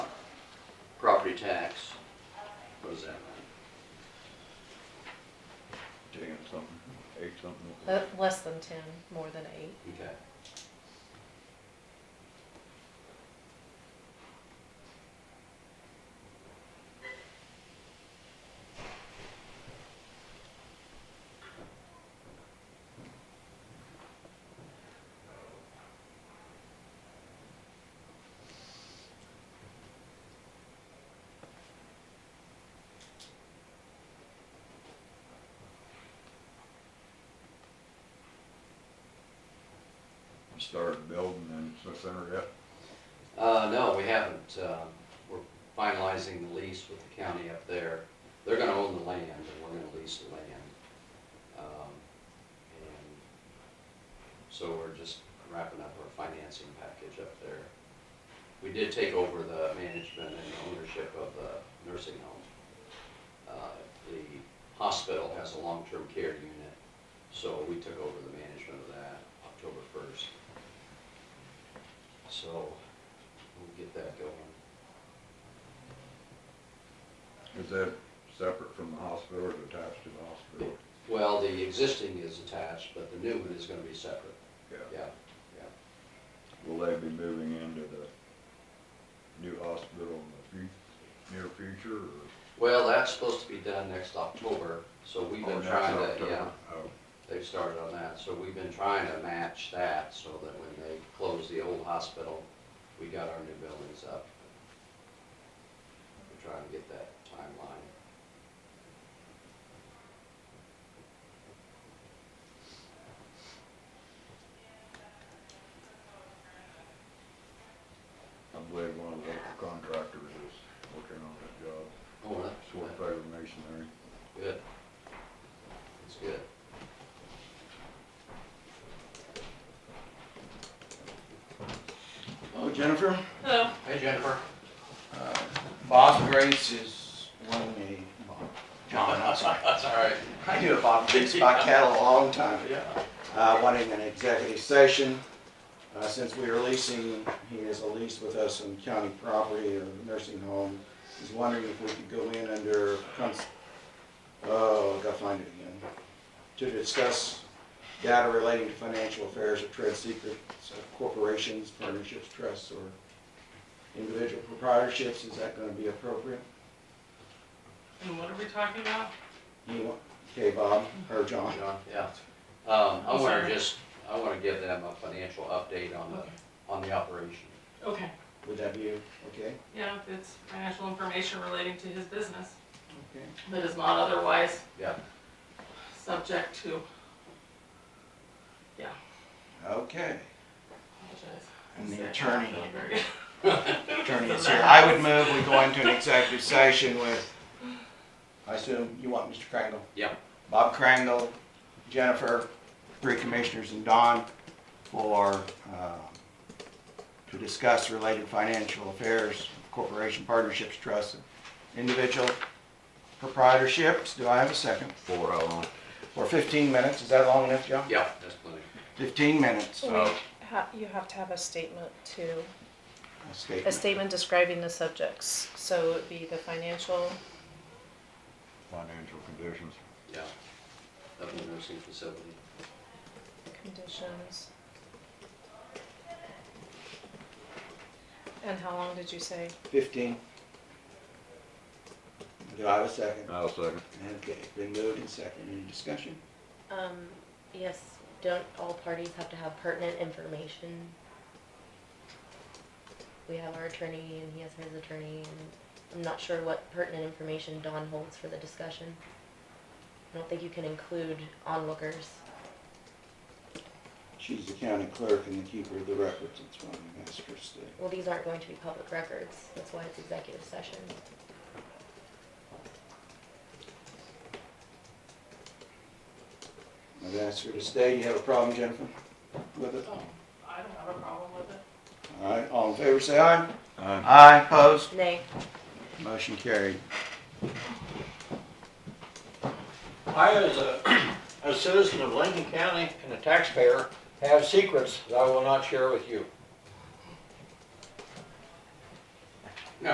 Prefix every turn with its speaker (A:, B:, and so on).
A: property tax. What does that mean?
B: Taking something, ate something.
C: Uh, Less than ten, more than eight.
A: Okay.
B: Started building in the center yet?
A: Uh, no, we haven't, uh, we're finalizing the lease with the county up there. They're gonna own the land, and we're gonna lease the land. Um, And so we're just wrapping up our financing package up there. We did take over the management and ownership of the nursing home. Uh, The hospital has a long-term care unit, so we took over the management of that October first. So, We'll get that going.
B: Is that separate from the hospital or is it attached to the hospital?
A: Well, the existing is attached, but the new one is gonna be separate,
B: Yeah.
A: yeah.
B: Will they be moving into the new hospital in the fu- near future or?
A: Well, that's supposed to be done next October, so we've
B: or
A: been
B: next
A: trying to,
B: October?
A: yeah,
B: Oh,
A: they've started on that, so we've been trying to match that so that when they close the old hospital, we got our new buildings up. We're trying to get that timeline.
B: I believe one of the local contractors is working on that job.
A: Oh, really?
B: Sort of favor masonry.
A: Good. That's good.
D: Oh, Jennifer,
C: Hello.
A: Hey Jennifer.
D: uh, Bob Grace is one of the, John, I'm sorry.
A: That's all right.
D: I knew a Bob Grace by cattle a long time ago.
A: Yeah.
D: Uh, wanting an executive session, uh, since we are leasing, he has a lease with us on county property or nursing home. He's wondering if we could go in under, cons- oh, I gotta find it again, to discuss data relating to financial affairs or trade secrets of corporations, partnerships, trusts, or individual proprietorships, is that gonna be appropriate?
E: And what are we talking about?
D: You want, okay, Bob, or John?
A: John, yeah. Um, I
E: I'm
A: wanna
E: sorry.
A: just, I wanna give them a financial update on
E: Okay.
A: the, on the operation.
E: Okay,
D: Would that be, okay?
E: yeah, it's financial information relating to his business
D: Okay.
E: that is not otherwise
A: Yeah,
E: subject to,
D: Okay.
E: apologize.
D: And the attorney.
E: Not very good.
D: attorney is here. I would move we go into an executive session with, I assume you want Mr. Krangle?
A: yeah,
D: Bob Krangle, Jennifer, three commissioners, and Don for, um, to discuss related financial affairs, corporation partnerships, trusts, and individual proprietorships. Do I have a second?
B: For how long?
D: For 15 minutes, is that long enough, John?
A: yeah, that's plenty.
D: 15 minutes,
C: We ha- you have to have a statement too,
D: a
C: a
D: statement,
C: statement describing the subjects. So it'd be the financial,
B: Financial conditions.
A: Yeah. Of the nursing facility.
C: conditions. And how long did you say?
D: 15. Do I have a second?
B: I'll second.
D: Okay, been moved and seconded, any discussion?
F: Um, yes, don't all parties have to have pertinent information? We have our attorney and he has his attorney and I'm not sure what pertinent information Don holds for the discussion. I don't think you can include onlookers.
D: She's the county clerk and the keeper of the records, it's one of the master's thing.
F: Well, these aren't going to be public records, that's why it's executive session.
D: I've asked her to stay, you have a problem, Jennifer, with it?
E: Oh, I don't have a problem with it.
D: All right, all in favor, say aye.
B: Aye.
D: Aye, opposed?
F: Nay.
D: Motion carried.
G: I, as a, a citizen of Lincoln County and a taxpayer, have secrets that I will not share with you.